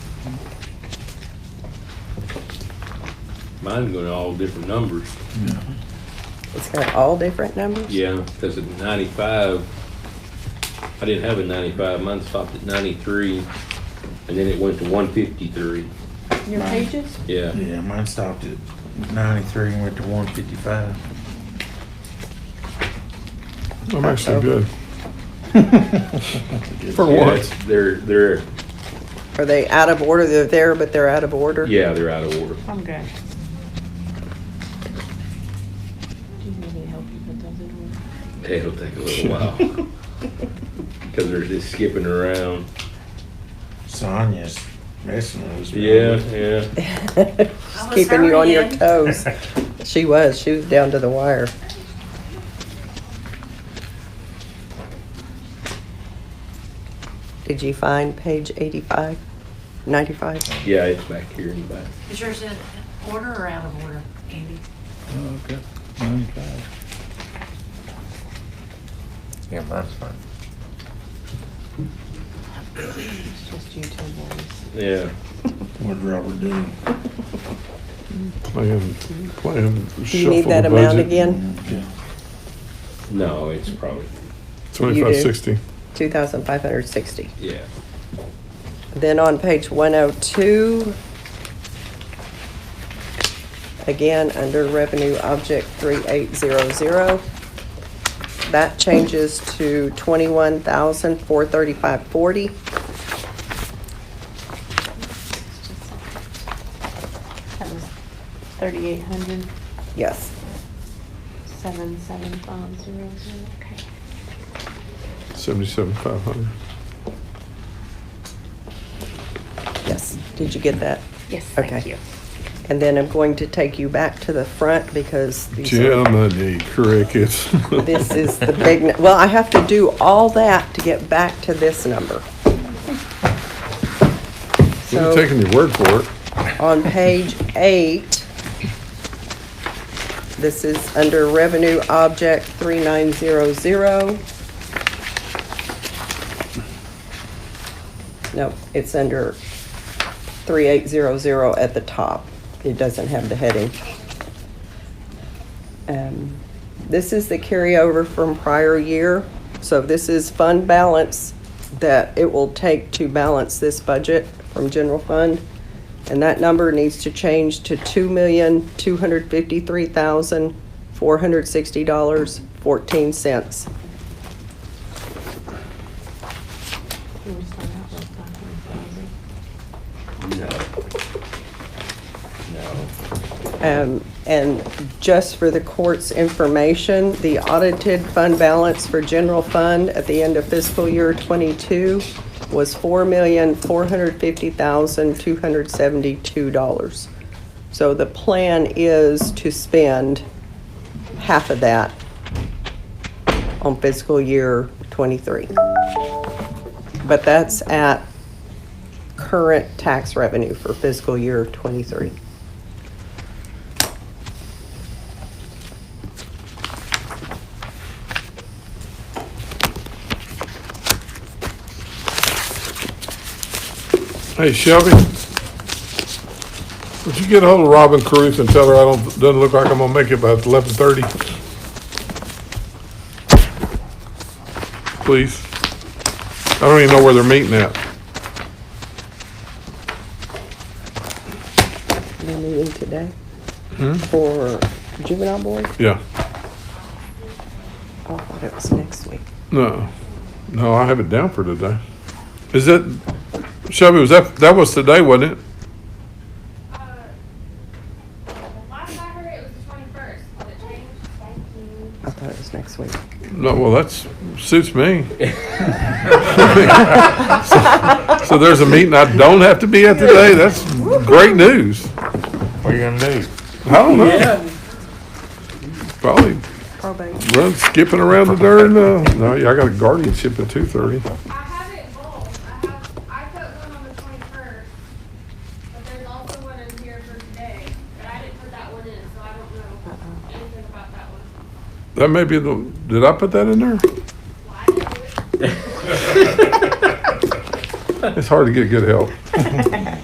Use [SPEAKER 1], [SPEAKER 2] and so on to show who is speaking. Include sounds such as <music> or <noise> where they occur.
[SPEAKER 1] Mine going to all different numbers.
[SPEAKER 2] It's got all different numbers?
[SPEAKER 1] Yeah, because at ninety-five, I didn't have a ninety-five, mine stopped at ninety-three, and then it went to one fifty-three,
[SPEAKER 3] Your
[SPEAKER 4] Right.
[SPEAKER 3] pages?
[SPEAKER 1] yeah.
[SPEAKER 4] Yeah, mine stopped at ninety-three and went to one fifty-five.
[SPEAKER 5] I'm actually good. For
[SPEAKER 1] Yeah,
[SPEAKER 5] once.
[SPEAKER 1] They're, they're,
[SPEAKER 2] Are they out of order? They're there, but they're out of order?
[SPEAKER 1] yeah, they're out of order.
[SPEAKER 3] I'm good. Do you need me to help you put those in
[SPEAKER 1] It'll take a little <laughs>
[SPEAKER 3] <laughs>
[SPEAKER 1] while, because they're just skipping around.
[SPEAKER 4] Sonia's messing with us.
[SPEAKER 1] Yeah, yeah,
[SPEAKER 2] She's Keeping you on your
[SPEAKER 4] <laughs>
[SPEAKER 2] toes. She was, she was down to the wire. Did you find page 85, 95?
[SPEAKER 1] yeah, it's back here in the back.
[SPEAKER 6] Is yours in order or out of order, Andy?
[SPEAKER 7] Okay, ninety-five.
[SPEAKER 4] Yeah, mine's fine.
[SPEAKER 3] order? It's just you two boys.
[SPEAKER 1] Yeah,
[SPEAKER 4] What'd Robert do?
[SPEAKER 3] <laughs>
[SPEAKER 5] Playing, playing shuffle the budget.
[SPEAKER 2] Do you need that amount again?
[SPEAKER 4] Okay.
[SPEAKER 1] no, it's probably,
[SPEAKER 5] Twenty-five sixty.
[SPEAKER 2] 2,560.
[SPEAKER 1] yeah.
[SPEAKER 2] Then on page 102, again, under Revenue Object 3800, that changes to 21,435.40. 40
[SPEAKER 3] That was thirty-eight hundred,
[SPEAKER 2] Yes.
[SPEAKER 3] seven, seven, five, zero, zero, okay.
[SPEAKER 5] Seventy-seven five hundred.
[SPEAKER 2] Yes, did you get that?
[SPEAKER 3] Yes,
[SPEAKER 2] Okay.
[SPEAKER 3] thank you.
[SPEAKER 2] And then I'm going to take you back to the front because these are-
[SPEAKER 5] Jiminy <laughs> crickets.
[SPEAKER 2] this is the big, nu- well, I have to do all that to get back to this number.
[SPEAKER 5] We're
[SPEAKER 2] So
[SPEAKER 5] taking your word for it.
[SPEAKER 2] on page eight, this is under Revenue Object 3900. No, it's under 3800 at the top. It doesn't have the heading. Um, This is the carryover from prior year, so this is fund balance that it will take to balance this budget from general fund. And that number needs to change to two million, two hundred fifty-three thousand, four hundred sixty dollars, fourteen cents.
[SPEAKER 3] You wanna start out with 500,000?
[SPEAKER 1] No. No.
[SPEAKER 2] Um, And just for the court's information, the audited fund balance for general fund at the end of fiscal year '22 was $4,450,272. So the plan is to spend half of that on fiscal year '23. But that's at current tax revenue for fiscal year '23.
[SPEAKER 5] Hey Shelby, would you get ahold of Robin Cruz and tell her I don't, doesn't look like I'm gonna make it by eleven thirty? Please. I don't even know where they're meeting at.
[SPEAKER 2] They're meeting today for juvenile board?
[SPEAKER 5] Yeah,
[SPEAKER 2] Oh, I thought it was next week.
[SPEAKER 5] no, no, I have it down for today. Is that, Shelby, was that, that was today, wasn't it?
[SPEAKER 8] Uh, Last I heard, it was the twenty-first. Did it change? Thank you.
[SPEAKER 2] I thought it was next week.
[SPEAKER 5] No, well, that's, suits me. <laughs> So there's a meeting I don't have to be at today, that's great news.
[SPEAKER 4] <laughs> What you gonna do?
[SPEAKER 5] I
[SPEAKER 1] <laughs>
[SPEAKER 5] don't know. Probably
[SPEAKER 2] Probably.
[SPEAKER 5] run skipping around the darn, uh, no, yeah, I got a guardianship at two thirty.
[SPEAKER 8] I have it both. I have, I put one on the twenty-first, but there's also one in here for today, but I didn't put that one in, so I don't know anything about that one.
[SPEAKER 5] That may be the, did I put that in there?
[SPEAKER 8] Well, I didn't do it.
[SPEAKER 5] It's hard to get good help.